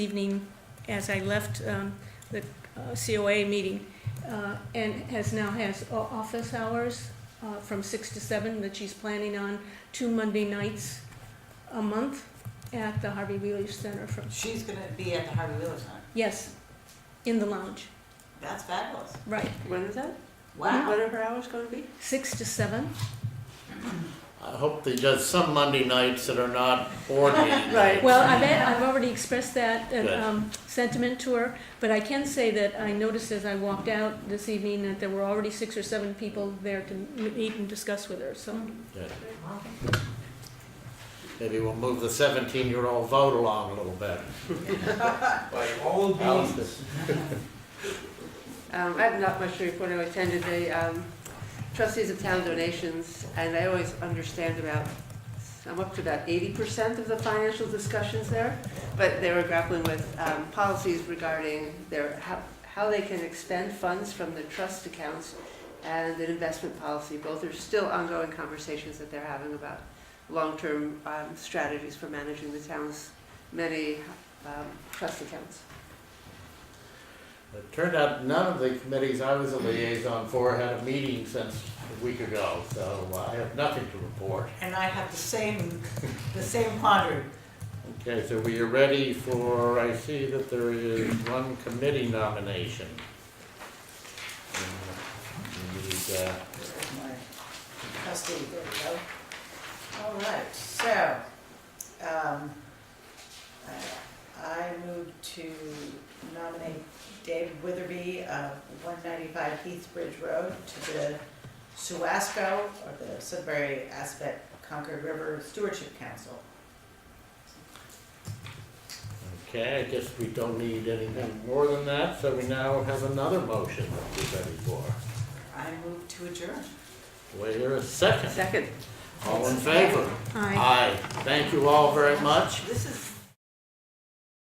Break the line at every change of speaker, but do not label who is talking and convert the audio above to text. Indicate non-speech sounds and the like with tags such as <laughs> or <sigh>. evening as I left um, the uh, COA meeting, uh, and has now has o- office hours uh, from six to seven that she's planning on two Monday nights a month at the Harvey Wheeler Center from,
She's gonna be at the Harvey Wheeler Center.
yes, in the lounge,
That's fabulous.
right,
When is that?
Wow.
What are her hours going to be?
six to seven.
I hope they does some Monday nights that are not board
<laughs>
meeting.
Right.
Well, I bet, I've already expressed that uh,
Good.
um, sentiment to her, but I can say that I noticed as I walked out this evening that there were already six or seven people there to m- meet and discuss with her, so.
Good. Maybe we'll move the seventeen-year-old vote along a little bit.
<laughs> By all means.
Um, I have not much to report. I attended the um, trustees of town donations, and I always understand about, I'm up to about eighty percent of the financial discussions there, but they were grappling with um, policies regarding their, how, how they can expend funds from the trust accounts and an investment policy. Both are still ongoing conversations that they're having about long-term um, strategies for managing the town's many um, trust accounts.
It turned out none of the committees I was a liaison for had a meeting since a week ago, so I have nothing to report.
And I have the same, the same quandary.
Okay, so we are ready for, I see that there is one committee nomination. Uh, We need, uh,
There's my Trustee, there we go. All right, so, um, I- I move to nominate David Witherby of one ninety-five Heathbridge Road to the Suasco, or the Sudbury Aspect Concord River Stewardship Council.
Okay, I guess we don't need anything more than that, so we now have another motion that we're ready for.
I move to adjourn.
Wait here a second.
Second.
All in favor? Aye. Thank you all very much.
This is